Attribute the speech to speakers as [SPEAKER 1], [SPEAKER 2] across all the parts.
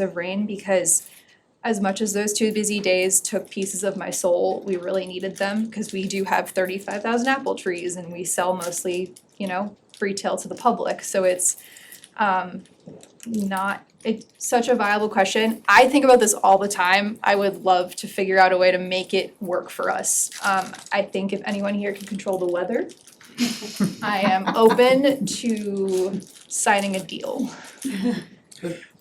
[SPEAKER 1] of rain because as much as those two busy days took pieces of my soul, we really needed them because we do have thirty-five thousand apple trees and we sell mostly, you know, retail to the public, so it's um not, it's such a viable question. I think about this all the time. I would love to figure out a way to make it work for us. Um I think if anyone here can control the weather, I am open to signing a deal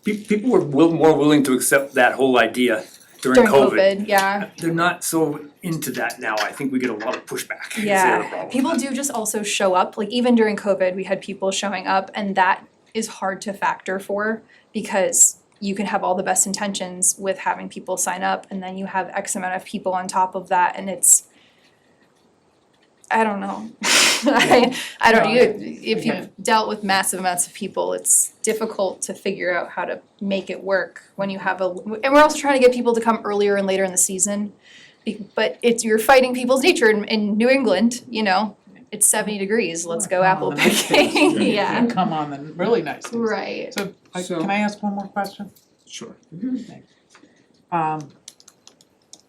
[SPEAKER 2] Pe- people were will, more willing to accept that whole idea during
[SPEAKER 1] during
[SPEAKER 2] COVID.
[SPEAKER 1] COVID, yeah.
[SPEAKER 2] They're not so into that now, I think we get a lot of pushback, is the other
[SPEAKER 1] Yeah,
[SPEAKER 2] problem.
[SPEAKER 1] people do just also show up, like even during COVID, we had people showing up and that is hard to factor for because you can have all the best intentions with having people sign up and then you have X amount of people on top of that and it's I don't know. I I don't you if you've dealt with massive amounts of people, it's difficult to figure out how to make it work when you have a and we're also trying to get people to come earlier and later in the season. Be- But it's you're fighting people's nature in in New England, you know, it's seventy degrees, let's go
[SPEAKER 3] Come on,
[SPEAKER 1] apple
[SPEAKER 3] the nice days,
[SPEAKER 1] picking,
[SPEAKER 3] You
[SPEAKER 1] yeah.
[SPEAKER 3] can come on the really nice days.
[SPEAKER 1] Right.
[SPEAKER 3] So, I-
[SPEAKER 4] So-
[SPEAKER 3] can I ask one more question? Mm-hmm.
[SPEAKER 4] Sure.
[SPEAKER 3] Um,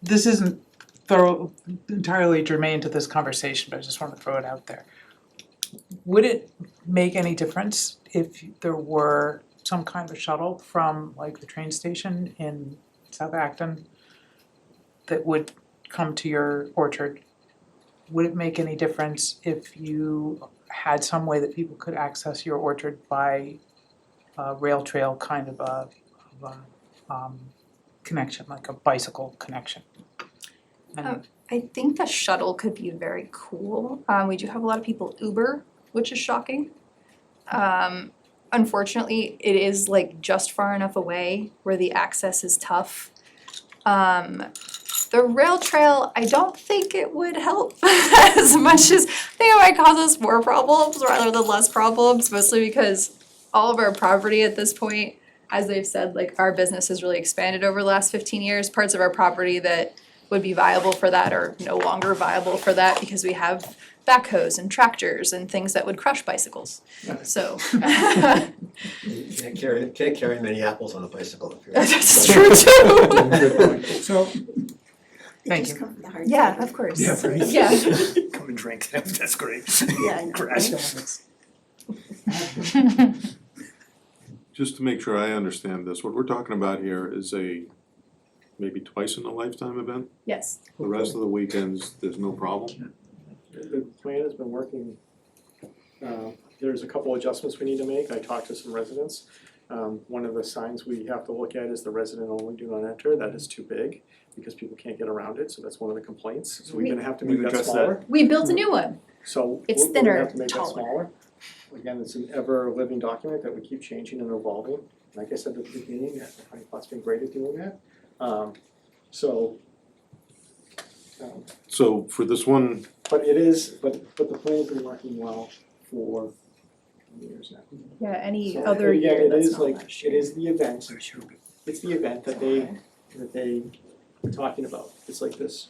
[SPEAKER 3] this isn't thorough, entirely germane to this conversation, but I just wanna throw it out there. Would it make any difference if there were some kind of shuttle from like the train station in South Acton that would come to your orchard? Would it make any difference if you had some way that people could access your orchard by a rail trail kind of a, of a, um, connection, like a bicycle connection.
[SPEAKER 1] Um,
[SPEAKER 3] And
[SPEAKER 1] I think the shuttle could be very cool. Um, we do have a lot of people Uber, which is shocking. Um, unfortunately, it is like just far enough away where the access is tough. Um, the rail trail, I don't think it would help as much as I think it might cause us more problems rather than less problems, mostly because all of our property at this point, as they've said, like our business has really expanded over the last fifteen years. Parts of our property that would be viable for that are no longer viable for that because we have backhoes and tractors and things that would crush bicycles. So
[SPEAKER 5] You Can't carry, can't carry many apples on a bicycle if you're.
[SPEAKER 1] that's true too.
[SPEAKER 4] So,
[SPEAKER 3] Thank
[SPEAKER 6] Just
[SPEAKER 3] you.
[SPEAKER 6] come from the hard
[SPEAKER 1] Yeah,
[SPEAKER 6] side.
[SPEAKER 1] of course.
[SPEAKER 4] yeah, right.
[SPEAKER 1] Yeah.
[SPEAKER 2] Come and drink, that's great.
[SPEAKER 6] Yeah, I know,
[SPEAKER 2] Crash.
[SPEAKER 6] right?
[SPEAKER 7] Just to make sure I understand this, what we're talking about here is a maybe twice in a lifetime event?
[SPEAKER 1] Yes.
[SPEAKER 7] The rest of the weekends, there's no problem?
[SPEAKER 8] The plan has been working. Uh, There's a couple adjustments we need to make. I talked to some residents. Um, One of the signs we have to look at is the resident only do not enter. That is too big because people can't get around it, so that's one of the complaints. So we're gonna have to
[SPEAKER 2] We've
[SPEAKER 8] make that
[SPEAKER 2] addressed
[SPEAKER 8] smaller.
[SPEAKER 1] We built a new one.
[SPEAKER 8] So
[SPEAKER 1] It's
[SPEAKER 8] we're we're gonna
[SPEAKER 1] thinner,
[SPEAKER 8] have to make that
[SPEAKER 1] taller.
[SPEAKER 8] smaller. Again, it's an ever-living document that we keep changing and evolving. Like I said at the beginning, I think has been great at doing that. Um, So um,
[SPEAKER 7] So for this one,
[SPEAKER 8] but it is, but but the plan's been working well for years now.
[SPEAKER 1] Yeah, any
[SPEAKER 8] So,
[SPEAKER 1] other
[SPEAKER 8] yeah,
[SPEAKER 1] year that's not
[SPEAKER 8] it
[SPEAKER 1] last
[SPEAKER 8] is like,
[SPEAKER 1] year.
[SPEAKER 8] it is the event, it's the event that they, that they were talking about, it's like this.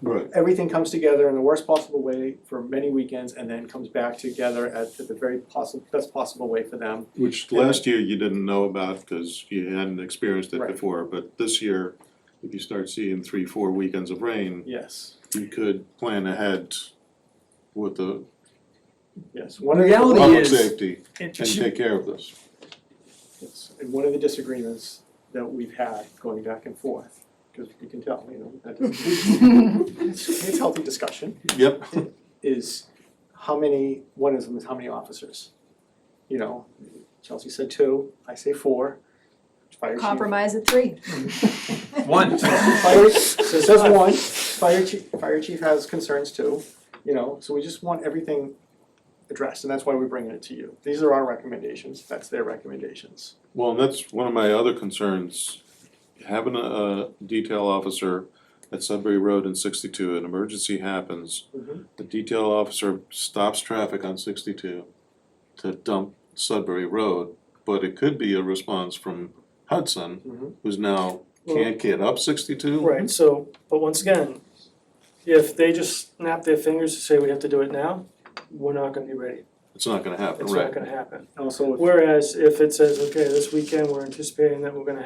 [SPEAKER 7] right,
[SPEAKER 8] Everything comes together in the worst possible way for many weekends and then comes back together at the very possible, best possible way for them.
[SPEAKER 7] which last year you didn't know about because you hadn't experienced it
[SPEAKER 8] Right.
[SPEAKER 7] before, but this year, if you start seeing three, four weekends of rain,
[SPEAKER 8] Yes,
[SPEAKER 7] you could plan ahead with the
[SPEAKER 8] yes, one of the.
[SPEAKER 4] Reality Well,
[SPEAKER 7] public
[SPEAKER 4] is-
[SPEAKER 7] safety
[SPEAKER 8] It
[SPEAKER 7] and
[SPEAKER 8] should-
[SPEAKER 7] take care of this.
[SPEAKER 8] Yes, and one of the disagreements that we've had going back and forth, because you can tell, you know, that it's it's healthy discussion.
[SPEAKER 7] Yep,
[SPEAKER 8] is how many, one of them is how many officers? You know, Chelsea said two, I say four. Fire chief-
[SPEAKER 1] Compromise at three.
[SPEAKER 2] One.
[SPEAKER 8] Fire, so it says one, fire chief, fire chief has concerns too, you know, so we just want everything addressed, and that's why we're bringing it to you. These are our recommendations, that's their recommendations.
[SPEAKER 7] Well, and that's one of my other concerns, having a, a detail officer at Sudbury Road in sixty-two, an emergency happens.
[SPEAKER 9] Mm-hmm.
[SPEAKER 8] Mhm.
[SPEAKER 7] The detail officer stops traffic on sixty-two to dump Sudbury Road, but it could be a response from
[SPEAKER 8] Mhm.
[SPEAKER 7] Hudson, who's now can't get up sixty-two.
[SPEAKER 9] Mm-hmm. Right, so, but once again, if they just snap their fingers and say we have to do it now, we're not gonna be ready.
[SPEAKER 7] It's not gonna happen,
[SPEAKER 9] It's
[SPEAKER 7] right?
[SPEAKER 9] not gonna happen.
[SPEAKER 8] Also, if
[SPEAKER 9] Whereas if it says, okay, this weekend, we're anticipating that we're gonna